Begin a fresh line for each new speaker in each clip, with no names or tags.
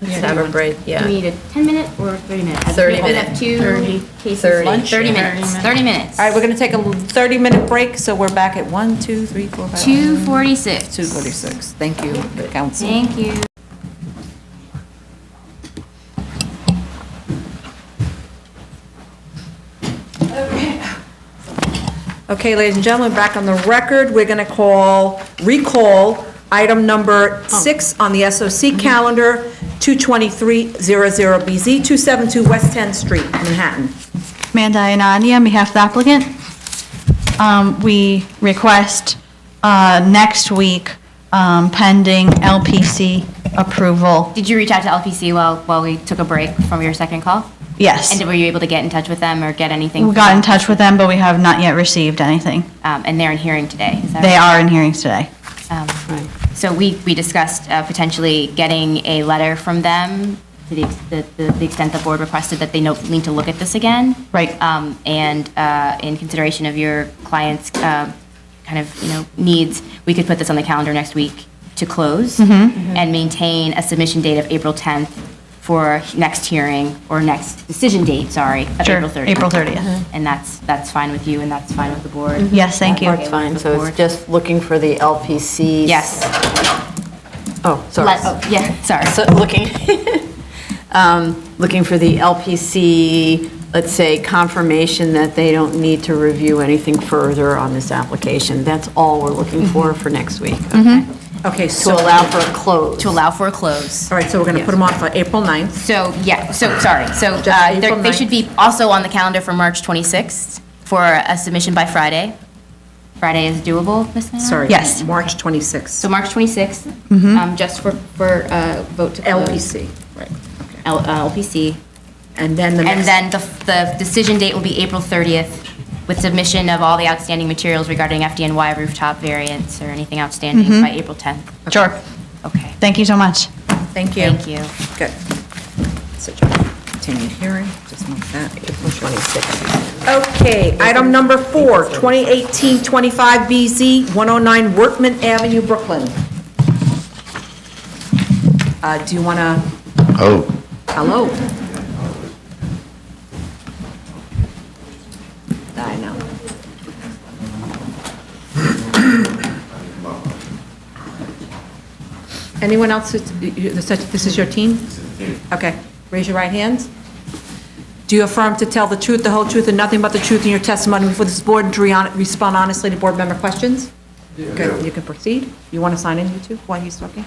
Yeah.
have a break, yeah.
Do we need a 10-minute or 30-minute?
30
We
minute.
have two
30.
cases.
30.
Lunch? 30 minutes, 30 minutes.
All right, we're going to take a 30-minute break, so we're back at 1, 2, 3, 4, 5.
246.
2:46. Thank you, council.
Thank you.
Okay, ladies and gentlemen, back on the record, we're going to call, recall item
Oh.
number six on the
Mm-hmm.
SOC calendar, 22300BZ, 272 West 10th Street, Manhattan.
Amanda Anani on behalf of the applicant. Um, We request uh, next week um, pending LPC approval.
Did you reach out to LPC while, while we took a break from your second call?
Yes.
And were you able to get in touch with them or get anything?
We
from
got in
them?
touch with them, but we have not yet received anything.
Um, And they're in hearing today, is that
They
right?
are in hearings today.
Um, So we, we discussed uh, potentially getting a letter from them to the, ex- the- the the extent the board requested that they no- need to look at this again.
Right.
Um, And uh, in consideration of your client's uh, kind of, you know, needs, we could put this on the calendar next week to close
Mm-hmm.
Mm-hmm.
and maintain a submission date of April 10th for next hearing, or next decision date, sorry, of
Sure,
April 30th.
April 30th.
And that's, that's fine with you, and that's fine with the board?
Mm-hmm.
Uh,
Yes, thank you.
Okay,
That's fine,
with the
so
board.
it's just looking for the LPCs.
Yes.
Oh, sorry.
Let- oh, Yeah, sorry.
So looking, um, looking for the LPC, let's say confirmation that they don't need to review anything further on this application. That's all we're looking for for next week. Okay.
Okay,
To
so, all
allow for a close.
to allow for a close.
right, so we're going to put them on for April 9th.
So, yeah, so, sorry, so uh,
Just
they're-
April
they should be also on the calendar for March 26th for a submission by Friday. Friday is doable, Ms. Nair?
Sorry. Mm-hmm.
Yes.
March 26th,
So March 26th, um, just for, for uh, vote to close.
LPC. Right.
L- uh, LPC.
E And then the
And then
next,
the, the decision date will be April 30th with submission of all the outstanding materials regarding FDNY rooftop variants or anything outstanding
Mm-hmm.
by April 10th.
Sure.
Okay,
Thank you so much.
thank you.
thank you.
Good. Such a continued hearing, just move that. April 26th. Okay, item number four, 2018-25BZ, 109 Workman Avenue, Brooklyn. Uh, Do you want to,
Oh,
hello? I know. Anyone else, that's- you- you- this is your team? Okay, raise your right hand. Do you affirm to tell the truth, the whole truth, and nothing but the truth in your testimony before this board and to re- respond honestly to board member questions? Good, you can proceed. You want to sign in, you two, while he's talking?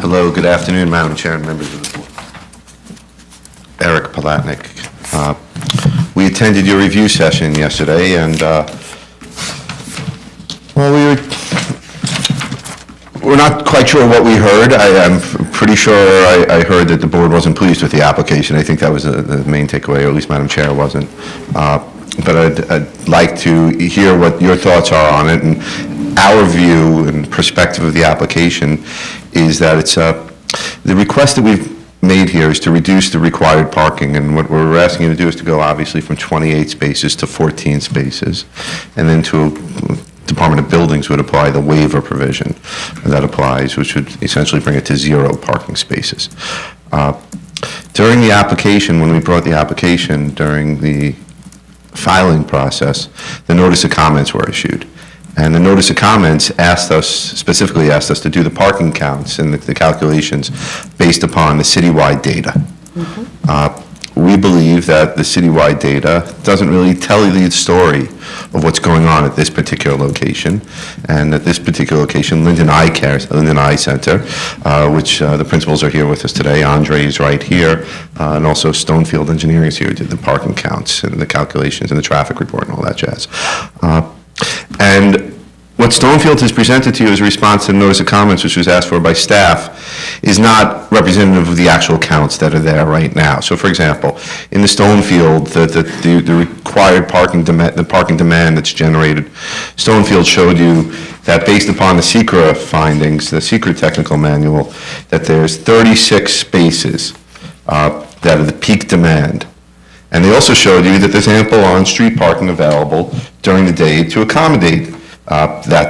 hello, good afternoon, Madam Chair and members of the board. Eric Palatnik. Uh, We attended your review session yesterday, and, uh, well, we were, we're not quite sure what we heard. I am pretty sure I I heard that the board wasn't pleased with the application. I think that was the- the main takeaway, or at least Madam Chair wasn't. Uh, But I'd I'd like to hear what your thoughts are on it, and our view and perspective of the application is that it's a, the request that we've made here is to reduce the required parking, and what we're asking you to do is to go obviously from 28 spaces to 14 spaces, and then to Department of Buildings would apply the waiver provision that applies, which would essentially bring it to zero parking spaces. Uh, During the application, when we brought the application during the filing process, the notice of comments were issued. And the notice of comments asked us, specifically asked us to do the parking counts and the- the calculations based upon the citywide data. Uh, We believe that the citywide data doesn't really tell you the story of what's going on at this particular location, and at this particular location, Linden Eye Care, Linden Eye Center, uh, which uh, the principals are here with us today, Andre is right here, uh, and also Stonefield Engineering is here, who did the parking counts and the calculations and the traffic report and all that jazz. Uh, And what Stonefield has presented to you as a response to the notice of comments, which was asked for by staff, is not representative of the actual counts that are there right now. So for example, in the Stonefield, the, the- the, the required parking demand, the parking demand that's generated, Stonefield showed you that based upon the secra findings, the secra technical manual, that there's 36 spaces uh, that are the peak demand. And they also showed you that there's ample on-street parking available during the day to accommodate uh, that